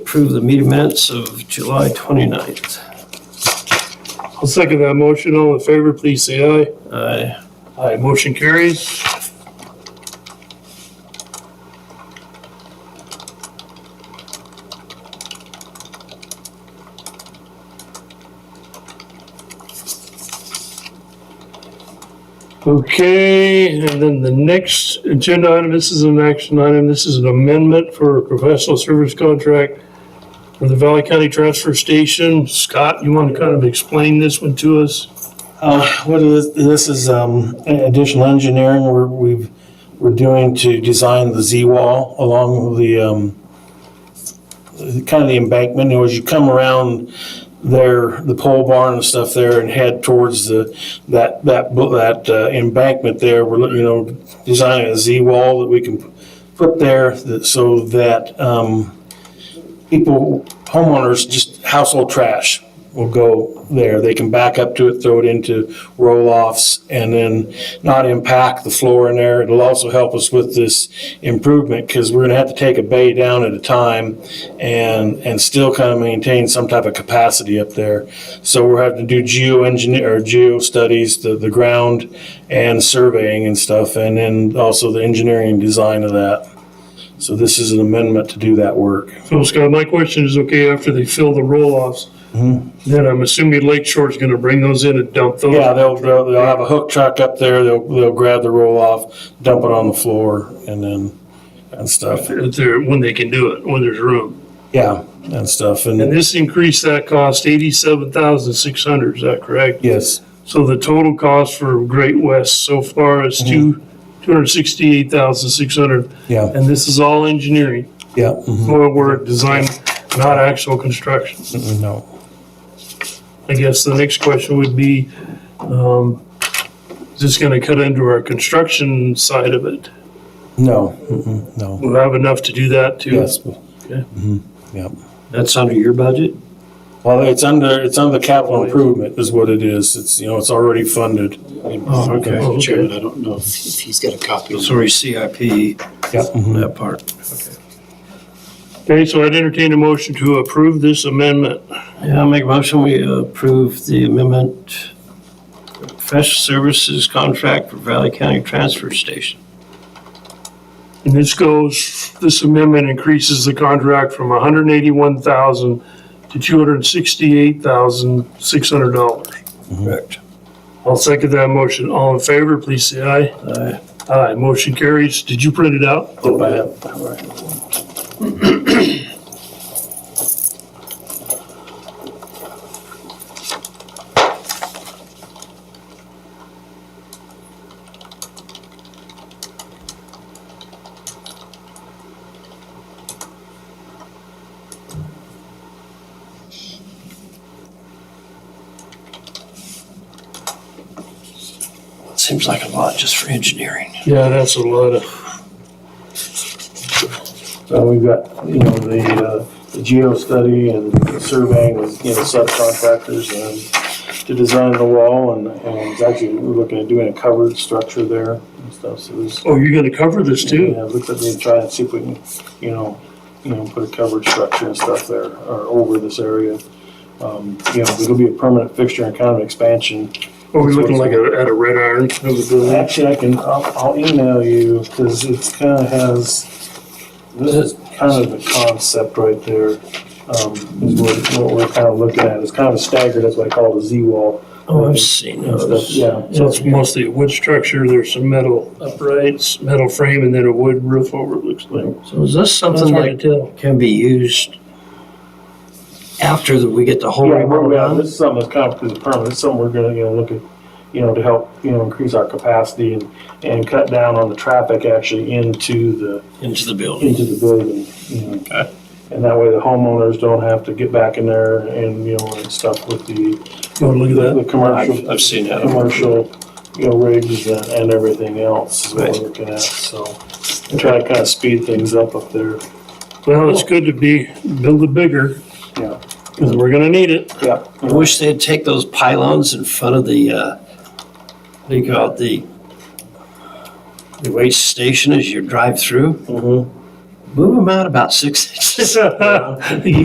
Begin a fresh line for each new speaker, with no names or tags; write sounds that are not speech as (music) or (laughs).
Approve the meeting minutes of July 29th.
I'll second that motion. All in favor, please say aye.
Aye.
Aye, motion carries. Okay, and then the next agenda item, this is an action item, this is an amendment for a professional service contract for the Valley County Transfer Station. Scott, you want to kind of explain this one to us?
Uh, What is, this is um, additional engineering we're, we've, we're doing to design the Z-wall along the, um, kind of the embankment, You know, as you come around there, the pole barn and stuff there and head towards the, that, that, bu- that uh, embankment there, we're, looking, you know, designing a Z-wall that we can put there that, so that, um, people, homeowners, just household trash will go there. They can back up to it, throw it into roll-offs, and then not impact the floor in there. It'll also help us with this improvement, because we're gonna have to take a bay down at a time and, and still kind of maintain some type of capacity up there. So we're having to do geoengineer, or geo studies, the, the ground and surveying and stuff, and then also the engineering and design of that. So this is an amendment to do that work.
So Scott, my question is, okay, after they fill the roll-offs, then I'm assuming Lake Shore's gonna bring those in and dump those?
Yeah, they'll, they'll, they'll have a hook truck up there, they'll, they'll grab the roll off, dump it on the floor and then, and stuff.
If they're- when they can do it, when there's room.
Yeah, and stuff,
And
and,
this increased that cost eighty-seven thousand six hundred, is that correct?
yes,
So the total cost for Great West so far is two, two hundred sixty-eight thousand six hundred,
yeah,
and this is all engineering,
yeah, mhm,
more work, design, not actual construction.
mhm, no.
I guess the next question would be, um, is this gonna cut into our construction side of it?
No, mhm, no,
We'll have enough to do that too?
yes.
That's under your budget?
Well, it's under, it's under capital improvement is what it is. It's, you know, it's already funded.
Oh, okay.
Oh,
Mr.
okay.
Chairman, I don't know if if he's got a copy.
Sorry, CIP,
Yeah, mhm.
that part.
Okay, so I'd entertain a motion to approve this amendment.
Yeah, I'll make a motion, we approve the amendment, professional services contract for Valley County Transfer Station.
And this goes, this amendment increases the contract from hundred and eighty-one thousand to two hundred and sixty-eight thousand, six hundred dollars.
Correct.
I'll second that motion. All in favor, please say aye.
Aye.
Aye, motion carries. Did you print it out?
Go back.
Seems like a lot just for engineering.
Yeah, that's a lot of,
So we've got, you know, the, uh, the geo study and the surveying with, you know, subcontractors and to design the wall and, and it's actually, we're looking at doing a covered structure there and stuff, so there's.
oh, you're gonna cover this too?
Yeah, look at me, try and see if we can, you know, you know, put a coverage structure and stuff there, or over this area. Um, You know, it'll be a permanent fixture and kind of expansion.
Are Oh, we looking like a- at a red iron of the building?
Actually, I can, I'll, I'll email you, because it's kind of has, this is kind of the concept right there. um, Is what, what we're kind of looking at, it's kind of staggered, that's what I call the Z-wall
Oh, I've seen
and stuff,
those.
yeah.
So it's mostly a wood structure, there's some metal uprights, metal frame, and then a wood roof over it looks like.
So is this something
That's hard
that
to tell.
can be used after that we get the whole
Yeah,
road
we're, yeah, this
done?
is something that's kind of is permanent, it's something we're gonna, you know, look at, you know, to help, you know, increase our capacity and, and cut down on the traffic actually into the,
Into the building?
into the building, you know. And that way the homeowners don't have to get back in there and, you know, and stuff with the,
Oh, look at that.
the commercial,
I've seen that.
commercial, you know, rigs and, and everything else is what
Right.
we're looking at, so. and Try to kind of speed things up up there,
Well, it's good to be, build it bigger,
yeah,
because we're gonna need (laughs) it.
yeah.
I wish they'd take those pylons in front of the, uh, what do you call it, the, the waste station as you drive through.
Mhm.
(laughs)
move them out about six (laughs) inches.
You